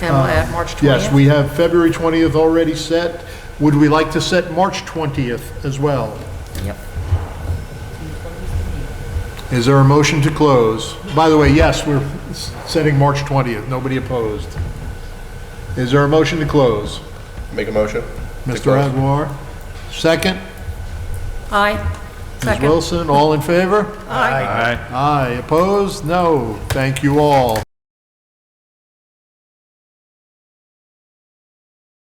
And we'll add March 20th. Uh, Yes, we have February 20th already set. Would we like to set March 20th as well? Yep. Is there a motion to close? By the way, yes, we're s- setting March 20th. Nobody opposed. Is there a motion to close? Make a motion? To Mr. close. Aguilar, second. Aye. Ms. Second. Wilson, all in favor? Aye. Aye. Aye. Opposed? No. Thank you all.